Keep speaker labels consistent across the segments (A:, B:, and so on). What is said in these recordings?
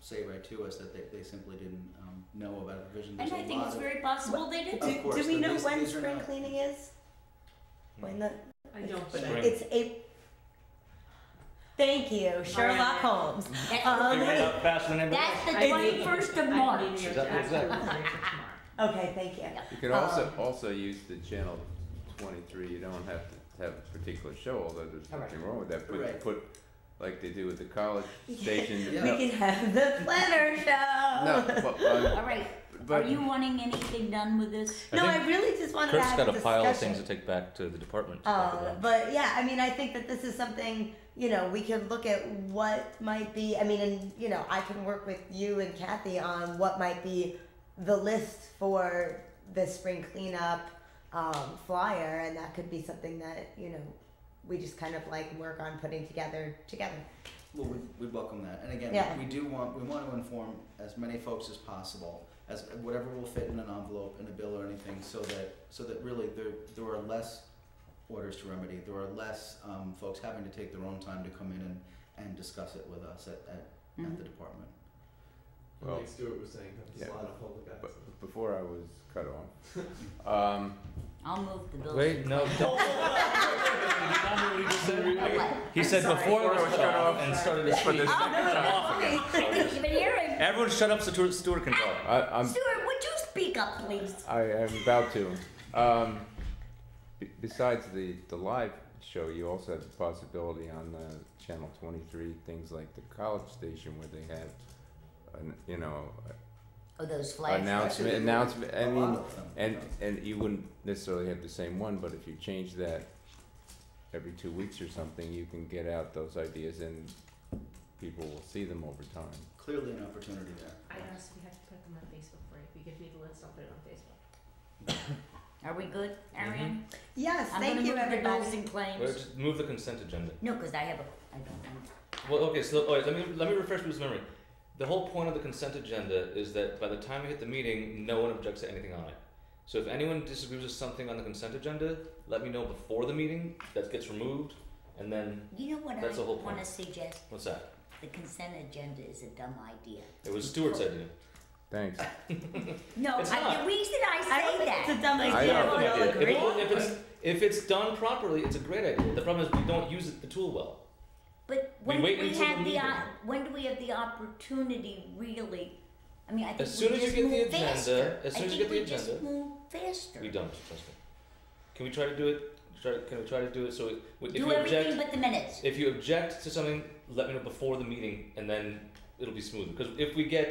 A: say right to us that they, they simply didn't um, know about the vision.
B: And I think it's very possible they did.
A: Of
C: Do,
A: course,
C: do we
A: but
C: know
A: these-
C: when
A: these are
C: spring
A: not- Hmm.
C: cleaning is? When the
D: I don't
A: But
D: think.
A: I-
C: it's April. Thank you, Sherlock
D: right.
C: Holmes.
B: That-
C: Um,
E: They ran out faster than everybody
B: that's the
D: I
C: It's-
D: need-
B: 21st of
D: I
B: March.
D: need
F: Is
D: to
F: that what
D: ask
F: it's
D: the
F: at?
D: reservation tomorrow.
C: Okay, thank you.
F: You could also,
C: Um,
F: also use the channel twenty-three, you don't have to have a particular show, although there's
D: All right.
F: nothing wrong with that,
A: Right.
F: but put, like they do with the college station.
A: Yeah. uh,
C: We
F: No,
C: can have the planner show.
F: No, but, um,
B: All right.
F: but
B: Are you wanting anything done with this?
C: No, I really just wanted to
G: Kurt's
C: have
G: got a
C: a
G: pile of
C: discussion.
G: things to take back to the department. to talk
C: Um,
G: about.
C: but yeah, I mean, I think that this is something you know we could look at what might be. I mean, and you know, I can work with you and Kathy on what might be the list for the spring cleanup um, flyer, and that could be something that you know we just kind of like work on putting together together.
A: Well, we, we welcome that, and again,
C: Yeah.
A: we do want we want to inform as many folks as possible, as whatever will fit in an envelope, in a bill, or anything, so that so that really there there are less orders to remedy, there are less um, folks having to take their own time to come in and, and discuss it with us at, at, at the
B: Mhm.
A: department.
F: Well,
H: like Stuart was saying, there's
F: yeah,
H: a lot of public access.
F: but before I was cut off, um,
B: I'll move the bill.
G: Wait, no. don't- He said
C: sorry.
G: before it was shut off and started to
F: for
G: speak.
F: the second time,
B: Didn't even hear him.
G: Everyone shut up so Stuart- Stuart can talk.
F: I, I'm
B: Stuart, would you speak up, please?
F: I am about to. Um, b- besides the, the live show, you also have the possibility on the Channel 23 things like the college station where they have, an, you know,
B: Oh,
G: Uh,
B: those flags.
F: announcement,
A: Actually,
F: announcement. I
A: A lot
F: mean,
A: of them,
F: and
A: you know.
F: and you wouldn't necessarily have the same one, but if you change that every two weeks or something, you can get out those ideas and people will see them over time.
A: clearly an opportunity there.
D: I asked if we have to put them on Facebook for you. If you give me the list, I'll put it on Facebook.
B: Are we good,
G: Mm-hmm.
B: Arian?
C: Yes,
B: I'm
C: thank
B: gonna
C: you,
B: move the
C: everybody.
B: bills and
G: Well,
B: claims.
G: just Move the consent agenda.
B: No, because I have a, I don't know.
G: Well, okay, so all right, let me let me refresh people's memory. The whole point of the consent agenda is that by the time we hit the meeting, no one objects to anything on it. So if anyone disagrees with something on the consent agenda, let me know before the meeting. That gets removed, and then
B: You know what
G: That's
B: I
G: the whole
B: want to
G: point.
B: suggest?
G: what's that?
B: The consent agenda is a dumb idea.
G: It was Stuart's idea.
F: Thanks.
B: No,
G: It's
B: I,
G: not.
B: the reason I
C: I don't
B: say
C: think
B: that.
C: it's a dumb idea.
F: I don't
C: we
F: think
C: all
F: it-
C: Oh, agree.
G: If, if it's if it's done properly, it's a great idea. The problem is we don't use it, the tool well.
B: But
G: We
B: when do
G: wait
B: we
G: until
B: have
G: the
B: the,
G: meeting.
B: op- when do we have the opportunity really? I mean, I think
G: As soon
B: we
G: as you
B: just
G: get the
B: move
G: agenda-
B: faster.
G: as soon
B: I
G: as
B: think
G: you get the
B: we just
G: agenda-
B: move faster.
G: We don't trust me. Can we try to do it? Try, can we try to do it so it- if
B: Do
G: you object?
B: everything but the minutes.
G: If you object to something, let me know before the meeting, and then it'll be smooth. Because if we get,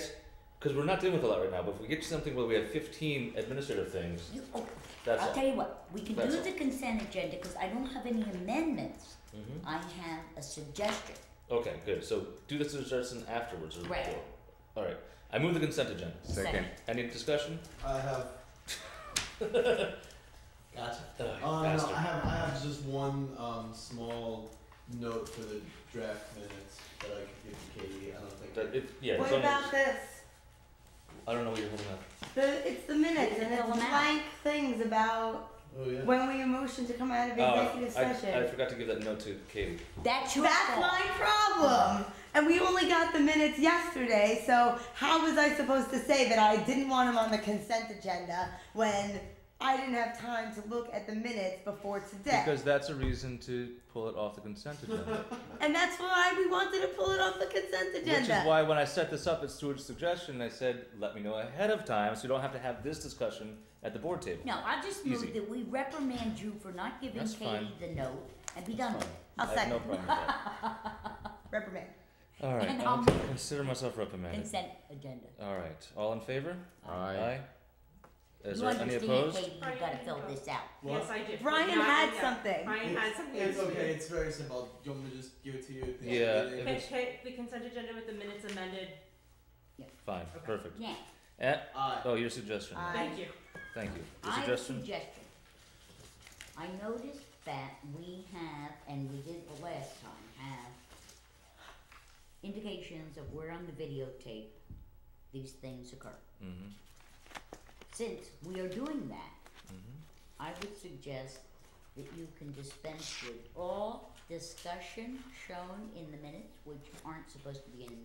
G: because we're not dealing with a lot right now, but if we get to something where we have 15 administrative things,
B: You, oh,
G: that's
B: I'll
G: all.
B: tell you what, we can
G: That's
B: do
G: all.
B: the consent agenda because I don't have any amendments.
G: hmm
B: I have a suggestion.
G: Okay, good. So do the suggestion afterwards. Or
B: Right.
G: before. All right. I move the consent agenda.
F: Second.
G: Any discussion?
H: I have
G: Gotcha.
H: Uh, no, I have I have just one um, small note for the draft minutes that I could give to Katie. I don't think
G: yeah, it's
C: What
G: on
C: about
G: yours.
C: this?
G: I don't know what you're holding up.
C: The, it's the minutes and it's
B: Fill 'em out.
C: blank things about
H: Oh yeah.
C: when we motion to come out of executive
G: oh, I,
C: session.
G: I forgot to give that note to Katie.
B: That's your
C: That's
B: fault.
C: my problem. And we only got the minutes yesterday, so how was I supposed to say that I didn't want them on the consent agenda when I didn't have time to look at the minutes before today?
G: that's a reason to pull it off the consent agenda.
C: and that's why we wanted to pull it off the consent agenda.
G: Which is why when I set this up at Stuart's suggestion, I said, let me know ahead of time so you don't have to have this discussion at the board table.
B: No, I just move
G: Easy.
B: that we reprimand you for not giving
G: That's
B: Katie
G: fine.
B: the note and be done with it.
C: I'll
G: I have no
C: second.
G: problem with that.
C: Reprimand.
G: All right,
B: And
G: I
B: I'll-
G: will consider myself reprimanded.
B: Consent agenda.
G: All right, all in favor?
F: Aye.
G: Is
B: you
G: there any
B: understand,
G: opposed?
B: Katie, you
D: Brian,
B: gotta
D: you
B: fill
D: go.
B: this out.
H: Well,
D: Yes, I do.
C: Brian
D: Yeah,
C: had
D: yeah.
C: something.
D: Brian had something.
H: It's
D: else to
H: okay.
D: do.
H: It's very simple. Do you want me to just give it to you? at the
G: Yeah,
H: end of the
G: if
H: day?
D: Hit, hit the consent agenda with the minutes amended.
G: Fine,
D: Okay.
G: perfect.
B: Yeah,
G: Eh,
H: Aye.
G: oh, your suggestion.
C: Aye.
D: Thank you.
G: Thank you. Your
B: I have a
G: suggestion?
B: suggestion. I noticed that we have, and we did the last time, have indications of where on the videotape these things occur.
G: Mhm.
B: Since we are doing that,
G: Mm-hmm.
B: I would suggest that you can dispense with all discussion shown in the minutes, which aren't supposed to be in